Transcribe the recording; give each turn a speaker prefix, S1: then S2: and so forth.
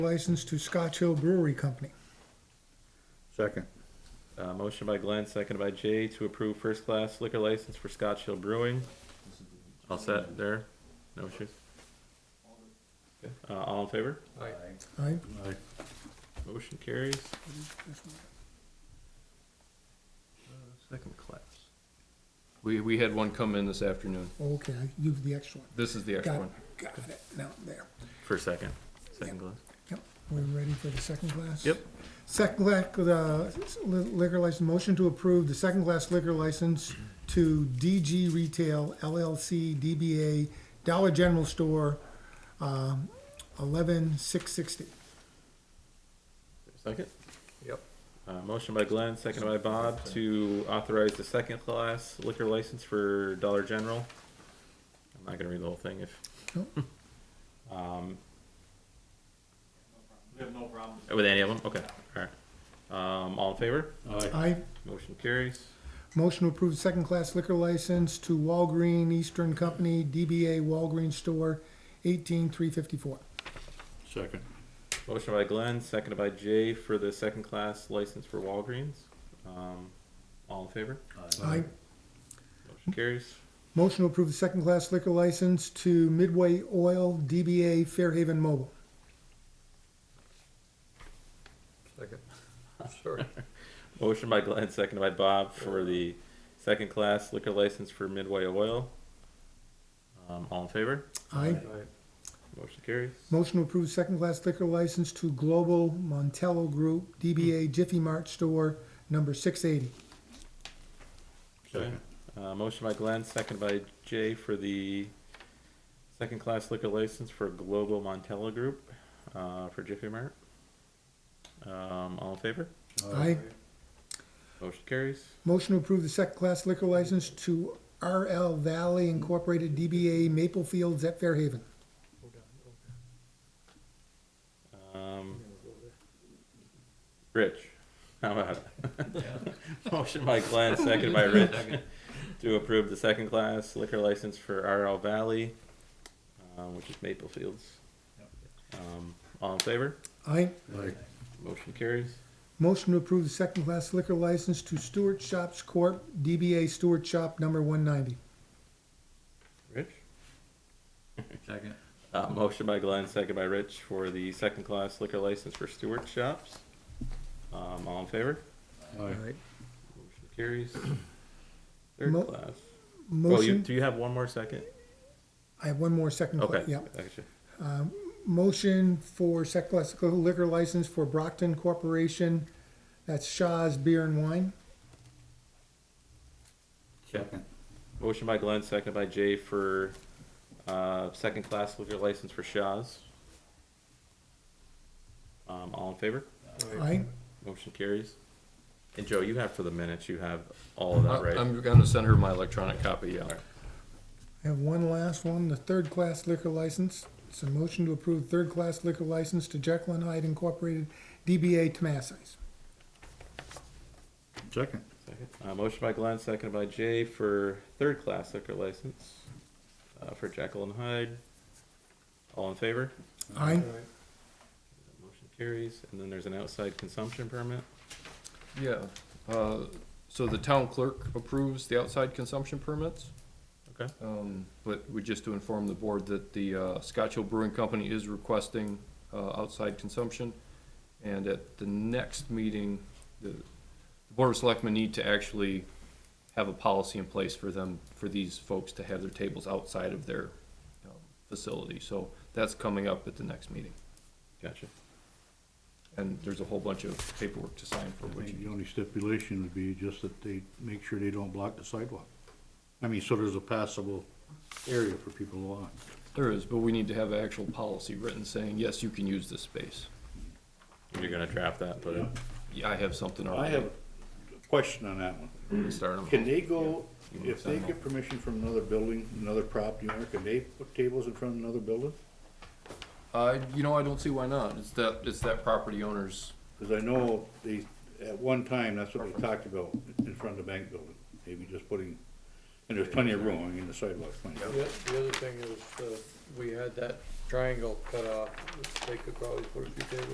S1: license to Scotch Hill Brewery Company.
S2: Second.
S3: Uh, motion by Glenn, seconded by Jay to approve first class liquor license for Scotch Hill Brewing. All set there? No issues? Okay, Uh, all in favor?
S1: Aye.
S3: Motion carries. Second class.
S4: We, we had one come in this afternoon.
S1: Okay, you have the extra one.
S4: This is the extra
S1: Got,
S4: one.
S1: got it. Now, there.
S3: For second, second class.
S1: Yep. We're ready for the second class?
S3: Yep.
S1: Second class, uh, liquor license, motion to approve the second class liquor license to DG Retail LLC DBA Dollar General Store, um, eleven six sixty.
S3: Second?
S4: Yep.
S3: Uh, motion by Glenn, seconded by Bob to authorize the second class liquor license for Dollar General. I'm not gonna read the whole thing if.
S1: Nope.
S3: Um. We have no problem. With any of them? Okay, alright. Um, all in favor?
S1: Aye.
S3: Motion carries.
S1: Motion to approve second class liquor license to Walgreen Eastern Company DBA Walgreen Store, eighteen three fifty-four.
S2: Second.
S3: Motion by Glenn, seconded by Jay for the second class license for Walgreens. Um, all in favor?
S1: Aye.
S3: Motion carries.
S1: Motion to approve the second-class liquor license to Midway Oil DBA Fairhaven Mobile.
S3: Motion by Glenn, seconded by Bob for the second class liquor license for Midway Oil. Um, all in favor?
S1: Aye.
S3: Motion carries.
S1: Motion to approve second-class liquor license to Global Montello Group DBA Jiffy Mart Store Number 680.
S3: Okay. Uh, motion by Glenn, seconded by Jay for the second class liquor license for Global Montella Group, uh, for Jiffy Mart. Um, all in favor?
S1: Aye.
S3: Motion carries.
S1: Motion to approve the second-class liquor license to RL Valley Incorporated DBA Maple Fields at Fairhaven.
S3: Um, Rich, how about it? Motion by Glenn, second by Rich, to approve the second class liquor license for RL Valley, um, which is Maple Fields. Um, all in favor?
S1: Aye.
S2: Aye.
S3: Motion carries.
S1: Motion to approve the second-class liquor license to Stewart Shops Corp. DBA Stewart Shop Number 190.
S3: Rich?
S4: Second.
S3: Uh, motion by Glenn, second by Rich for the second class liquor license for Stewart Shops. Um, all in favor?
S2: Aye.
S3: Motion carries. Third
S1: Mo-
S3: class. Well, you,
S1: Motion,
S3: do you have one more second?
S1: I have one more second. cla-
S3: Okay.
S1: Yeah.
S3: Gotcha.
S1: Motion for second class liquor license for Brockton Corporation, that's Shaw's Beer and Wine.
S2: Second.
S3: Motion by Glenn, second by Jay for, uh, second class liquor license for Shaw's. Um, all in favor?
S1: Aye.
S3: Motion carries. And Joe, you have for the minutes, you have all of that, right?
S4: Uh, I'm gonna send her my electronic copy, yeah.
S1: I have one last one, the third class liquor license. It's a motion to approve third class liquor license to Jekyll and Hyde Incorporated, DBA Tomases.
S2: Second.
S3: Uh, motion by Glenn, second by Jay for third class liquor license, uh, for Jekyll and Hyde. All in favor?
S1: Aye.
S3: Motion carries. And then there's an outside consumption permit.
S4: Yeah, uh, so the town clerk approves the outside consumption permits.
S3: Okay.
S4: Um, but we just to inform the board that the, uh, Scotch Hill Brewing Company is requesting, uh, outside consumption. And at the next meeting, the, the Board of Selectmen need to actually have a policy in place for them, for these folks to have their tables outside of their, um, facility. So that's coming up at the next meeting.
S3: Gotcha.
S4: And there's a whole bunch of paperwork to sign for
S2: I
S4: which.
S2: think the only stipulation would be just that they make sure they don't block the sidewalk. I mean, so there's a passable area for people to walk.
S4: There is, but we need to have an actual policy written saying, yes, you can use this space.
S3: You're gonna draft that, put it.
S4: Yeah, I have something
S2: I
S4: already.
S2: have a question on that one.
S4: Start 'em.
S2: Can they go, if they
S4: Yeah.
S2: get permission from another building, another property owner, can they put tables in front of another building?
S4: Uh, you know, I don't see why not. It's that, it's that property owner's,
S2: Cause I know they, at one time, that's what they talked about, in front of the bank building, maybe just putting, and there's plenty of room, I mean, the sidewalk's plenty.
S5: The the other thing is, uh, we had that triangle cut off, they could probably put a few tables